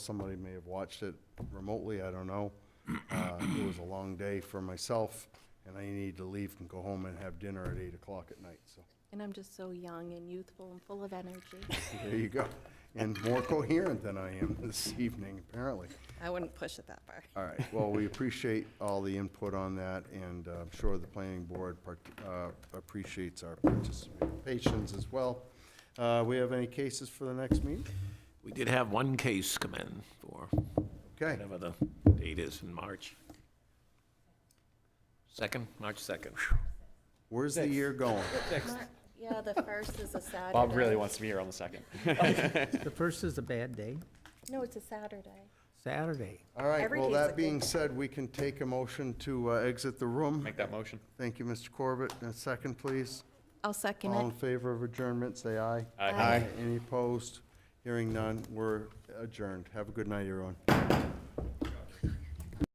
Somebody may have watched it remotely, I don't know. Uh, It was a long day for myself, and I need to leave and go home and have dinner at 8 o'clock at night, so And I'm just so young and youthful and full of energy. there you go. And more coherent than I am this evening, apparently. I wouldn't push it that far. All right, well, we appreciate all the input on that, and uh, I'm sure the planning board part- uh, appreciates our participations as well. Uh, We have any cases for the next meeting? We did have one case come in for Okay. whatever the date is in March. Second, March 2nd. Where's the year going? Yeah, the first is a Saturday. Bob really wants to be here on the second. The first is a bad day, No, it's a Saturday. Saturday. All right, Every well, day's a that good being day. said, we can take a motion to uh, exit the room. Make that motion. Thank you, Mr. Corbett. And a second, please. I'll second All in it. favor of adjournment, say aye. Aye. Aye. Any opposed? Hearing none, we're adjourned. Have a good night, everyone.